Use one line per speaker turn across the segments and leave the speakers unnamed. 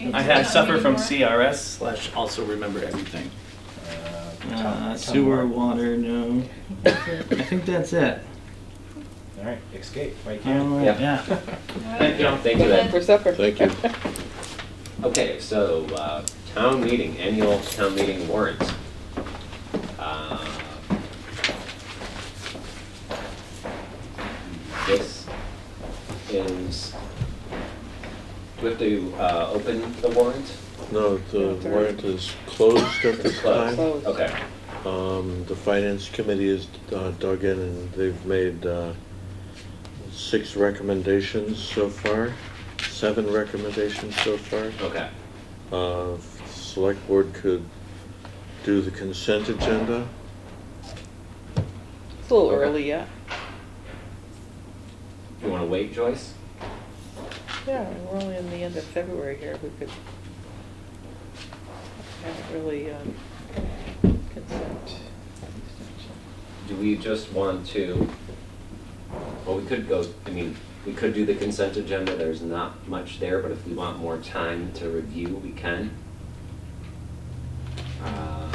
I
I
had-
had suffer from
Anymore?
CRS slash also remember everything. Uh, Sewer, water, no. I think that's it.
All right, escape, right
All
here.
right,
Yeah.
yeah.
Thank you. Thank you, Ed.
For supper.
Thank you.
Okay, so, uh, town meeting, annual town meeting warrants. Uh, This is, do we have to, uh, open the warrant?
No, the warrant is closed at
It's
this
closed.
time.
Closed.
Okay,
Um, the finance committee is uh, dug in and they've made, uh, six recommendations so far, seven recommendations so far.
okay,
Uh, select board could do the consent agenda.
It's a little early yet.
you wanna wait, Joyce?
Yeah, we're only in the end of February here, we could. Haven't really, um, consent.
Do we just want to, well, we could go, I mean, we could do the consent agenda, there's not much there, but if we want more time to review, we can. Um,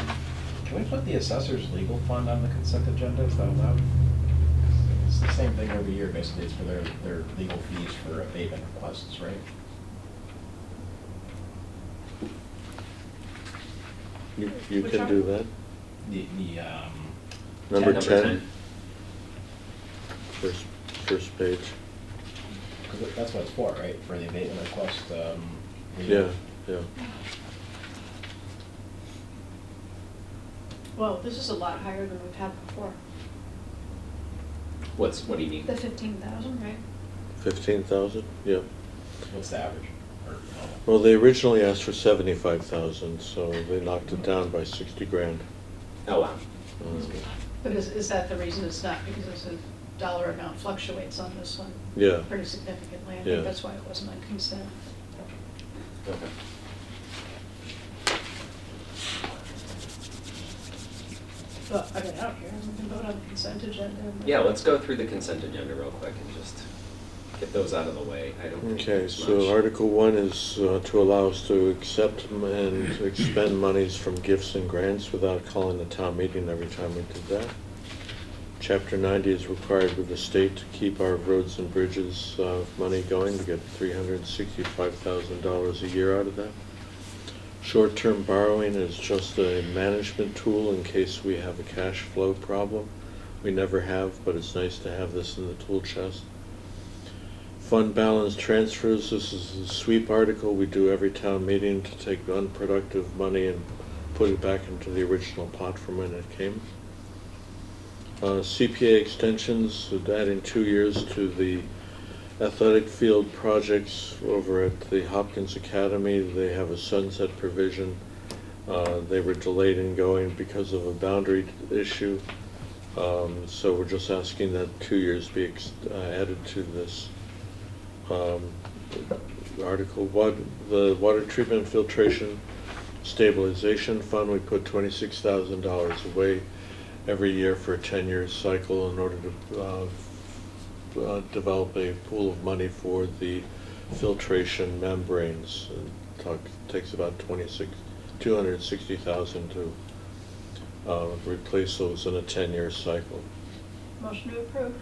Can we put the assessor's legal fund on the consent agenda, is that allowed? It's the same thing every year, basically, it's for their, their legal fees for abatement requests, right?
You, you
Which
can
one?
do that.
The, the, um,
Number ten, first, first page.
because that's what it's for, right, for the abatement request, um. legal-
Mm-hmm.
Yeah, yeah.
Well, this is a lot higher than we've had before.
What's, what do you mean?
The fifteen thousand, right?
Fifteen thousand, yeah.
What's the average? Or, oh.
Well, they originally asked for seventy-five thousand, so they knocked it down by sixty grand.
Oh, wow.
Um,
But is, is that the reason it's not, because it's a dollar amount fluctuates on this one?
Yeah.
Pretty significantly, I
Yeah.
think that's why it wasn't on consent.
Okay.
But, I mean, out here, we can vote on the consent agenda. and-
Yeah, let's go through the consent agenda real quick and just get those out of the way. I don't think
Okay,
there's
so
much.
Article One is uh, to allow us to accept m- and expend monies from gifts and grants without calling a town meeting every time we did that. Chapter ninety is required with the state to keep our roads and bridges uh, money going, to get three hundred and sixty-five thousand dollars a year out of that. Short-term borrowing is just a management tool in case we have a cash flow problem. We never have, but it's nice to have this in the tool chest. Fund balance transfers, this is a sweep article we do every town meeting to take unproductive money and put it back into the original pot from when it came. Uh, CPA extensions, adding two years to the athletic field projects over at the Hopkins Academy. They have a sunset provision. Uh, They were delayed in going because of a boundary issue. Um, So we're just asking that two years be ex- uh, added to this um, article. What, the water treatment filtration stabilization fund, we put twenty-six thousand dollars away every year for a ten-year cycle in order to uh, uh, develop a pool of money for the filtration membranes. It talk- Takes about twenty-six, two hundred and sixty thousand to uh, replace those in a ten-year cycle.
Motion to approve.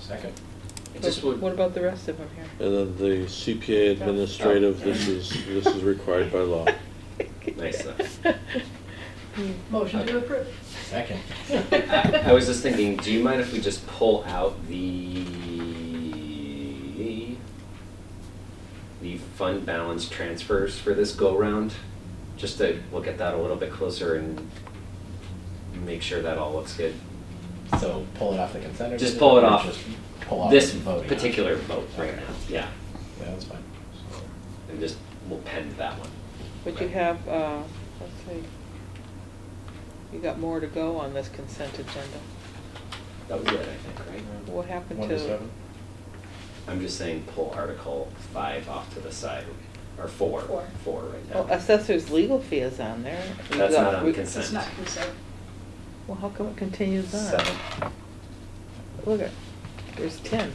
Second.
I just
What-
would-
What about the rest of them here?
And then the CPA administrative, this is, this is required by law.
Nice,
Motion to approve.
Second.
I I was just thinking, do you mind if we just pull out the the fund balance transfers for this go round? Just to look at that a little bit closer and make sure that all looks good.
So pull it off the consent agenda?
Just pull it
or
off.
just Pull off
This
the voting?
particular vote right
Okay.
now, yeah,
Yeah, that's fine.
and just, we'll pen that one.
But you have, uh, let's see, you got more to go on this consent agenda.
That was it, I think, right?
What happened
One to
to-
seven?
I'm just saying pull Article five off to the side, or four,
Four.
four right now.
Well, Oh, assessor's legal fee is on there. You
That's
got-
not on
we-
consent.
It's not consent.
Well, how come it continues on?
Seven.
Look at, there's ten.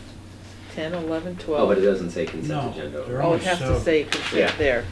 Ten, eleven, twelve.
Oh, but it doesn't say consent
No,
agenda.
they're
Oh,
all
it has to
seven.
say
Yeah.
consent there.